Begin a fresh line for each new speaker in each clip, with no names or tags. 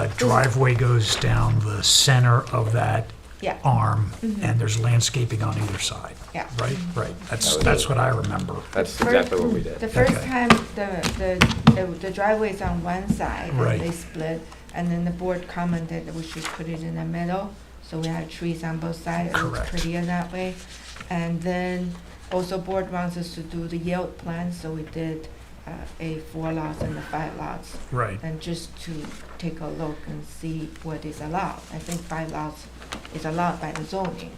a driveway goes down the center of that
Yeah.
arm, and there's landscaping on either side.
Yeah.
Right, right, that's,
That was
that's
it.
what I remember.
That's
First-
exactly what we did.
The first
Okay.
time, the, the, the- the driveway is on one side,
Right.
and they split, and then the board commented that we should put it in the middle, so we have trees on both sides, it looks
Correct.
prettier that way. And then also board wants us to do the yield plan, so we did, uh, a four lots and a five lots,
Right,
and just to take a look and see what is allowed. I think five lots is allowed by the zoning.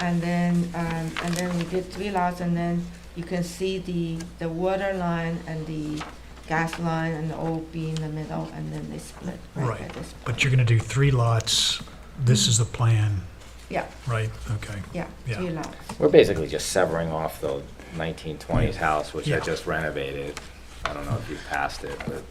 And then, um, and then we did three lots, and then you can see the, the water line and the gas line and all be in the middle, and then they split right
Right,
at this.
but you're gonna do three lots, this is the plan,
Yeah,
right, okay,
yeah,
Yeah.
three lots.
We're basically just severing off the 1920s house, which I
Yeah.
just renovated. I don't know if you passed it, but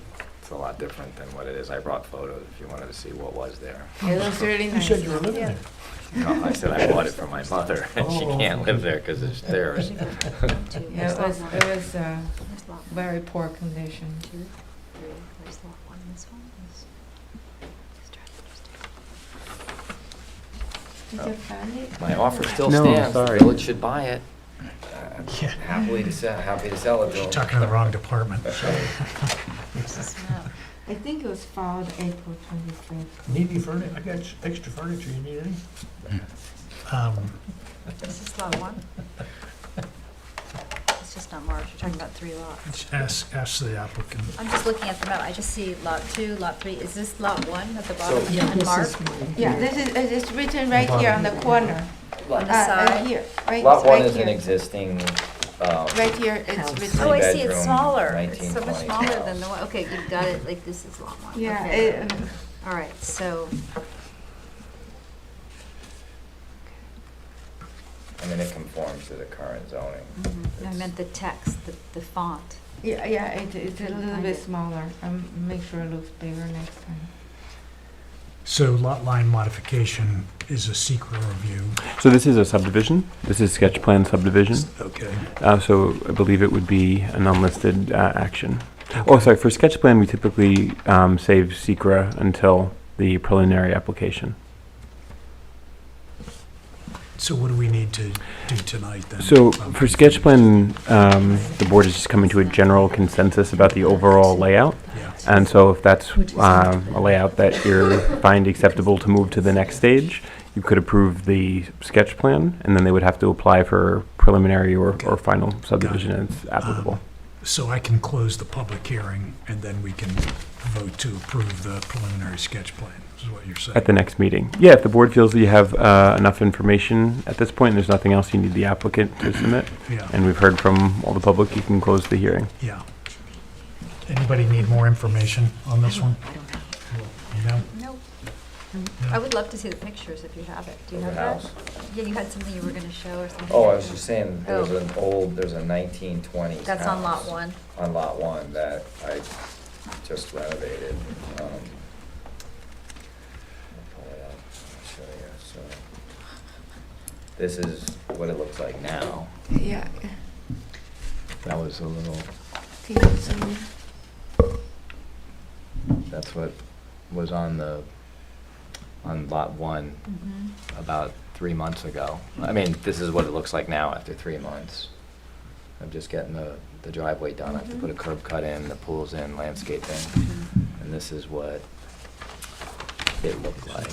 it's a lot different than what it is. I brought photos if you wanted to see what was there.
It looks really nice.
living there.
No, I said I bought it for my mother, and she
Oh.
can't live there because it's theirs.
Yeah, it was, it was, uh,
There's lot one,
very poor condition.
two, three. Where's lot one? This one is. just trying to understand.
Did you find it?
My offer still
No,
stands. The
sorry.
village should buy it. I'm
Yeah.
Happily to sell, happy to sell it.
She's
though.
talking to the wrong department.
There's this map.
I think it was filed April twenty-fifth.
Need any furniture? I got s- extra furniture. You need any?
Um,
This is lot one. It's just not marked, you're talking about three lots.
Ask, ask the applicant.
I'm just looking at the map, I just see lot two, lot three, is this lot one at the
So-
bottom unmarked
Yeah, this is, it is written right here on the corner.
on the
Uh, uh,
side?
Here, right,
Lot one
right
is an
here.
existing, um,
Right here,
House.
it's written,
Oh, I see, it's
Three-bedroom,
smaller, it's so much
1920s
smaller than the
house.
one, okay, you've got it, like, this is lot one,
yeah,
okay.
it, um,
All right, so,
I mean, it conforms to the current zoning.
mm-hmm. I
It's-
meant the text, the, the font.
yeah, yeah, it, it's a
Couldn't
little
find
bit
it.
smaller. Um, make sure it looks bigger next time.
So lot line modification is a secret review.
So this is a subdivision. This is sketch plan subdivision.
Okay.
Uh, so I believe it would be an unlisted uh, action. Oh, sorry. For sketch plan, we typically um, save secra until the preliminary application.
So what do we need to do tonight then?
So for sketch plan, um, the board is just coming to a general consensus about the overall layout.
Yeah.
And so if that's um, a layout that you find acceptable to move to the next stage, you could approve the sketch plan, and then they would have to apply for preliminary or, or final subdivision as applicable.
So I can close the public hearing and then we can vote to approve the preliminary sketch plan, is what you're saying?
At the next meeting. Yeah, if the board feels that you have uh, enough information at this point, and there's nothing else you need the applicant to submit,
Yeah,
and we've heard from all the public, you can close the hearing.
yeah. Anybody need more information on this one?
I don't have.
You know?
Nope. I
No?
would love to see the pictures if you have it. Do you
Of the
have that?
house.
Yeah, you had something you were gonna show or something.
Oh, I was just saying, there was
Oh.
an old, there's a nineteen twenties
That's on lot one.
On lot one that I just renovated. um, I'll pull it up, I'll show you, so. This is what it looks like now.
Yeah.
That was a little,
Can you zoom
that's what was on the, on lot one
Mhm.
about three months ago. I mean, this is what it looks like now after three months. I'm just getting the, the driveway done, I have to put a curb cut in, the pool's in, landscaping, and this is what it looked like.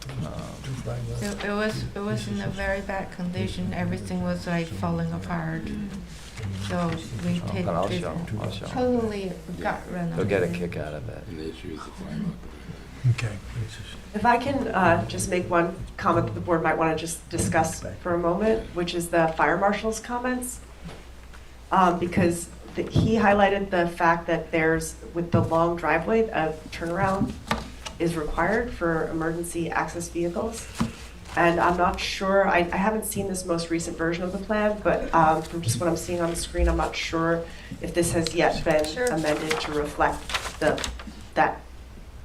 Two
Um,
flag lots.
in? It, it was, it was in a very bad condition. Everything was like falling apart.
Hmm.
So we take
But I'll
this
show, I'll show.
totally got run
They'll get a kick out of it.
Okay.
If I can uh, just make one comment that the board might want to just discuss for a moment, which is the fire marshal's comments. Um, Because the- he highlighted the fact that there's, with the long driveway, a turnaround is required for emergency access vehicles. And I'm not sure, I I haven't seen this most recent version of the plan, but um, from just what I'm seeing on the screen, I'm not sure if this has yet been
Sure.
amended to reflect the, that,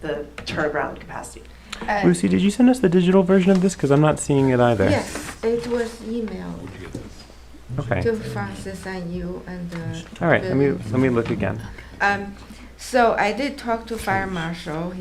the turnaround capacity.
Uh,
Lucy, did you send us the digital version of this? Because I'm not seeing it either.
Yes, it was emailed
Okay.
to Francis and you and, uh.
All right, let me,
Bill.
let me look again.
Um, So I did talk to fire marshal.